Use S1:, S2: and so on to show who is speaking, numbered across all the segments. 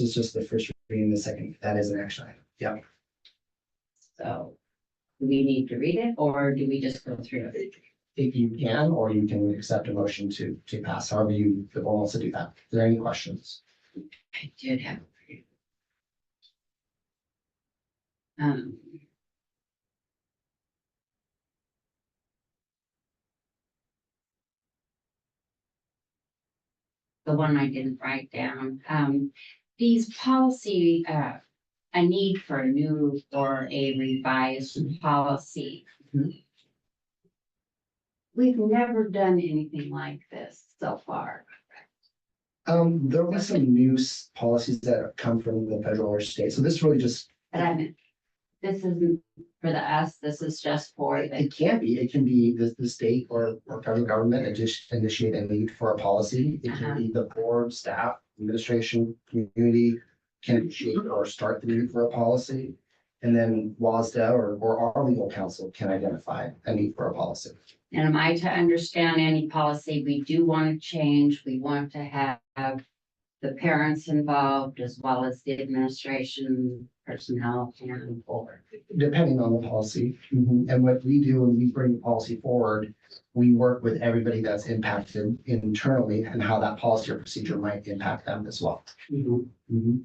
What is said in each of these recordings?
S1: is just the first reading, the second, that is an action item.
S2: So do we need to read it or do we just go through it?
S1: If you can, or you can accept a motion to, to pass, however you, the board wants to do that. Are there any questions?
S2: I did have. a few. Um. The one I didn't write down, um, these policy, uh, a need for a new or a revised policy.
S1: Mhm.
S2: We've never done anything like this so far.
S1: Um, there was some new s- policies that have come from the federal or state, so this really just,
S2: But I meant, this isn't for the us, this is just for the,
S1: it can be, it can be the, the state or, or federal government initi- initiate and lead for a policy. It
S2: Uh-huh.
S1: can be the board, staff, administration, community can initiate or start the need for a policy. And then WASDA or, or our legal counsel can identify a need for a policy.
S2: and am I to understand any policy we do want to change, we want to have the parents involved as well as the administration personnel and board.
S1: depending on the policy. And what we do when we bring the policy forward, we work with everybody that's impacted internally and how that policy or procedure might impact them as well. Mm-hmm.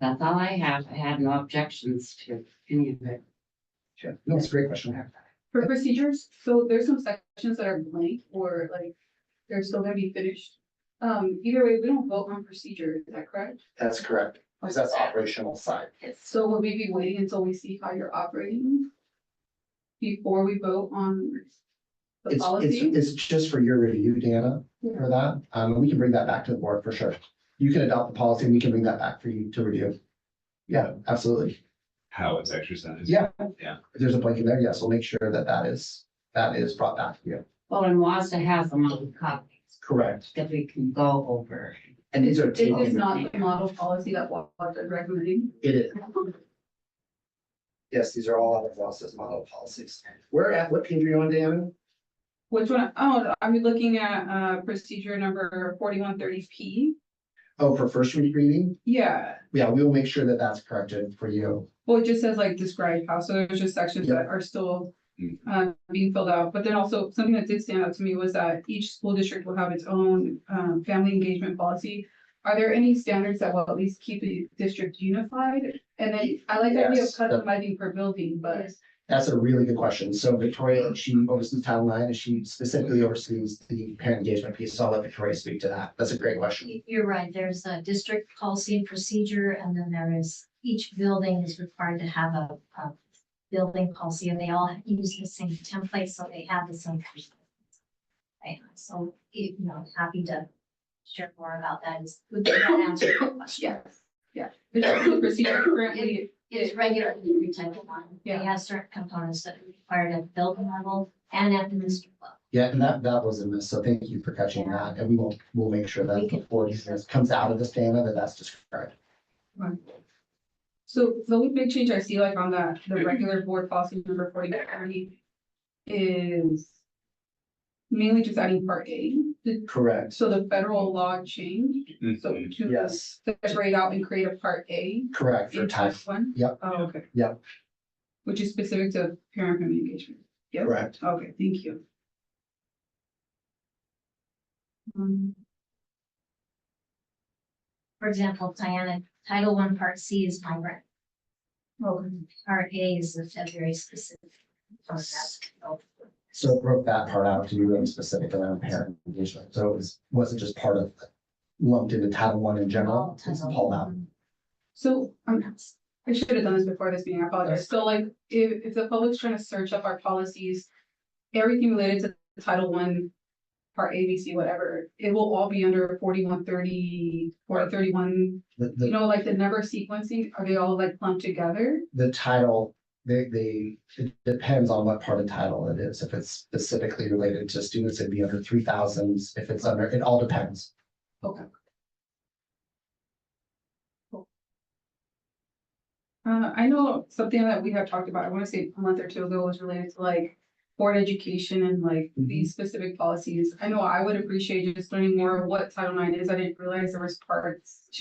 S2: That's all I have. I had no objections to any of it.
S1: Sure. No, it's a great question.
S3: For procedures, so there's some sections that are blank or like, they're still gonna be finished. Um, either way, we don't vote on procedure, is that correct?
S1: That's correct, because that's operational side.
S2: It's,
S3: So will we be waiting until we see how you're operating? Before we vote on the
S1: It's, it's,
S3: policy?
S1: it's just for your review, Dana,
S3: Yeah.
S1: for that. Um, we can bring that back to the board for sure. You can adopt the policy and we can bring that back for you to review. Yeah, absolutely.
S4: how it's exercised.
S1: Yeah.
S4: Yeah.
S1: If there's a blank in there, yes, we'll make sure that that is, that is brought back to you.
S2: well, and WASDA has a model copies
S1: Correct.
S2: that we can go over.
S1: And these are.
S3: It is
S1: taken-
S3: not the model policy that WAPA is recommending.
S1: It is. Yes, these are all out of process model policies. Where at, what page are you on, Diana?
S3: Which one, oh, I'm looking at, uh, procedure number forty-one thirty P.
S1: Oh, for first read reading?
S3: Yeah,
S1: Yeah, we will make sure that that's corrected for you.
S3: Well, it just says like describe how, so there's just sections
S1: Yeah.
S3: that are still
S4: Mm.
S3: uh being filled out, but then also something that did stand out to me was that each school district will have its own um family engagement policy. Are there any standards that will at least keep the district unified? And then I like the idea of
S1: Yes.
S3: customizing per building, but
S1: That's a really good question. So Victoria, she oversees Title IX, and she specifically oversees the parent engagement piece. So I'll let Victoria speak to that. That's a great question.
S5: You- You're right, there's a district policy and procedure, and then there is, each building is required to have a, a building policy, and they all use the same template, so they have the same. Right, so, you know, happy to share more about that, is, would that answer your question?
S3: yes, yeah. The district procedure currently,
S5: It's regularly retyped one, they
S3: Yeah.
S5: have certain components that are required at building level and at the district level.
S1: Yeah, and that, that was a miss. So thank you for catching that. And we will, we'll make sure that before this comes out of this, Diana, that that's described.
S3: so the only big change I see like on the the regular board policy number forty thirty is mainly just adding part A. Did-
S1: Correct.
S3: So the federal law changed, so
S4: Mhm.
S3: to
S1: Mm-hmm. Yes,
S3: separate out and create a part A
S1: correct for
S3: in
S1: time.
S3: type one?
S1: Yep.
S3: Oh, okay.
S1: Yep.
S3: Which is specific to parent family engagement. Yep.
S1: Correct.
S3: Okay, thank you. Um,
S5: For example, Diana, Title One Part C is migrant,
S3: okay.
S5: Part A is a very specific.
S1: So it broke that part out to be really specific around parent engagement. So it was, wasn't just part of lumped into Title One in general, it's all out.
S3: So, um, I should have done this before this meeting, I apologize. So like, if, if the public's trying to search up our policies, everything related to Title One, Part A, B, C, whatever, it will all be under forty-one thirty, or thirty-one,
S1: The,
S3: you
S1: the,
S3: know, like the number sequencing, are they all like lumped together?
S1: the title, they, they, it depends on what part of title it is. If it's specifically related to students, it'd be under three thousands. If it's under, it all depends.
S3: Uh, I know something that we have talked about, I wanna say a month or two ago was related to like board education and like these specific policies. I know I would appreciate just learning more of what Title IX is. I didn't realize there was parts to